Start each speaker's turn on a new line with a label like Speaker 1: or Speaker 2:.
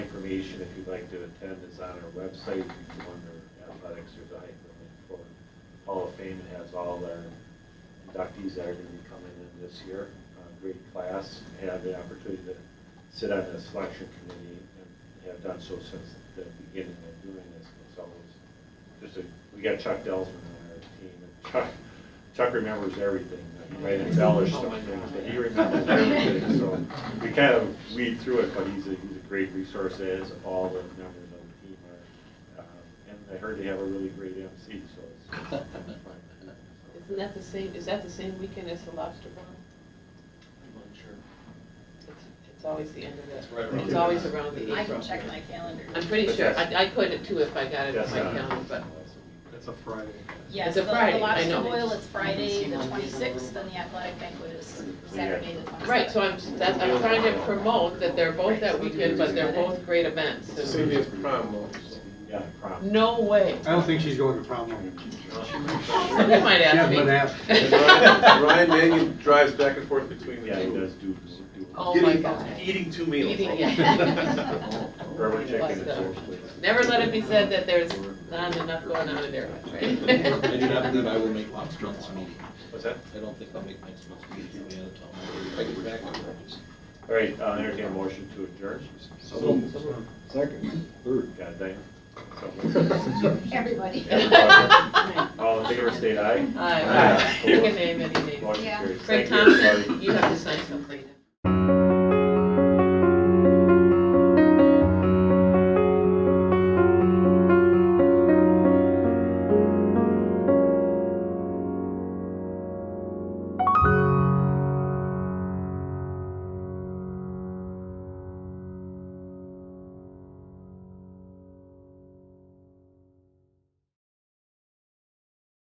Speaker 1: information if you'd like to attend is on our website. You can go under athletics, there's a hyperlink for Hall of Fame. It has all our inductees that are going to be coming in this year. Uh, Great class, had the opportunity to sit on the selection committee and have done so since the beginning of doing this. It's always, just a, we got Chuck Delsman on our team. and Chuck, Chuck remembers everything. He might embellish
Speaker 2: Oh
Speaker 1: some
Speaker 2: my
Speaker 1: things,
Speaker 2: God.
Speaker 1: but he remembers everything. So we kind of weed through it, but he's a, he's a great resource as all the members of the team are. Um, And I heard they have a really great MC, so it's it's fun.
Speaker 3: Isn't that the same, is that the same weekend as the lobster boil?
Speaker 2: I'm unsure.
Speaker 3: It's, it's always the end of
Speaker 2: It's right
Speaker 3: the,
Speaker 2: around
Speaker 3: it's
Speaker 2: the-
Speaker 3: always around the
Speaker 4: I
Speaker 3: eighth.
Speaker 4: can check my calendar.
Speaker 3: I'm pretty
Speaker 1: But
Speaker 3: sure,
Speaker 1: that's-
Speaker 3: I, I could it too if I got it on
Speaker 1: That's
Speaker 3: my
Speaker 2: uh,
Speaker 1: not-
Speaker 3: calendar, but
Speaker 5: That's a Friday.
Speaker 4: Yes,
Speaker 3: It's a
Speaker 4: the the
Speaker 3: Friday, I
Speaker 4: lobster
Speaker 3: know.
Speaker 4: boil is Friday,
Speaker 2: Seen
Speaker 4: the
Speaker 2: on the-
Speaker 4: twenty-sixth, and the athletic banquet is Saturday, the twenty-seventh.
Speaker 3: Right, so I'm, that's, I'm trying to promote that they're both that weekend, but they're both great events. and-
Speaker 6: Sylvia's prom, though, so.
Speaker 1: Yeah, prom.
Speaker 3: No way.
Speaker 5: I don't think she's going to prom. though.
Speaker 3: Somebody might
Speaker 5: Yeah,
Speaker 3: ask
Speaker 5: but
Speaker 3: me.
Speaker 6: And Ryan Ryan Mangan drives back and forth between the
Speaker 1: Yeah, he does
Speaker 6: two.
Speaker 1: do, do.
Speaker 3: Mm. Oh my
Speaker 6: Getting-
Speaker 3: God.
Speaker 6: Eating two meals.
Speaker 3: Eating, yeah.
Speaker 1: Urban chicken
Speaker 3: Bust
Speaker 1: and
Speaker 3: up.
Speaker 1: soul plates.
Speaker 3: Never let it be said that there's not enough going on in there.
Speaker 2: I do not believe I will make lobster on this meeting.
Speaker 1: What's that?
Speaker 2: I don't think I'll make next month's meeting, I'll be out of town. If I get back, I'll.
Speaker 1: All right, uh, entertain a motion to adjourn.
Speaker 7: Second, third.
Speaker 1: God damn.
Speaker 4: Everybody.
Speaker 1: All in favor, state aye.
Speaker 3: Aye.
Speaker 1: Aye.
Speaker 3: You can name any name.
Speaker 1: Motion
Speaker 4: Yeah.
Speaker 1: carries.
Speaker 3: Craig
Speaker 1: Thank you,
Speaker 3: Thompson,
Speaker 1: everybody.
Speaker 3: you have to sign something.